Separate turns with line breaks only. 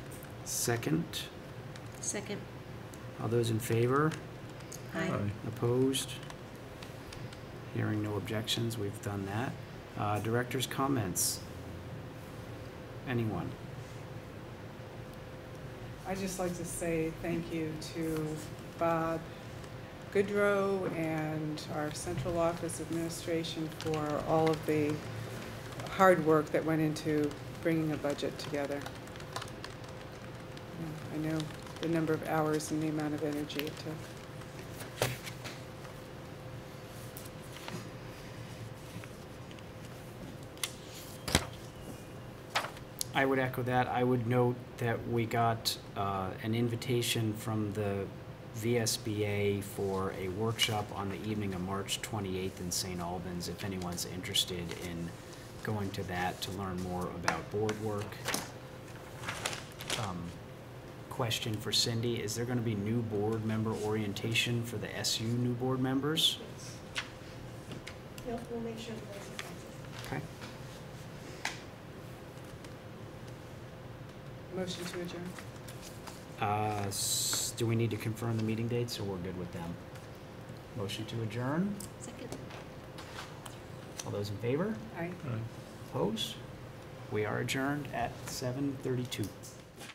Second,
Second.
all those in favor?
Aye.
Opposed? Hearing no objections, we've done that. Uh, Director's comments? Anyone?
I'd just like to say thank you to Bob Goodrow and our central office administration for all of the hard work that went into bringing a budget together. Yeah, I know the number of hours and the amount of energy it took.
I would echo that. I would note that we got uh, an invitation from the VSBA for a workshop on the evening of March 28th in St. Albans, if anyone's interested in going to that to learn more about board work. Um, Question for Cindy, is there going to be new board member orientation for the SU new board members?
Yep, we'll make sure that that's effective.
Okay.
Motion to adjourn.
Uh, s- Do we need to confirm the meeting dates, or we're good with them? Motion to adjourn?
Second.
All those in favor?
Aye.
Opposed? We are adjourned at 7:32.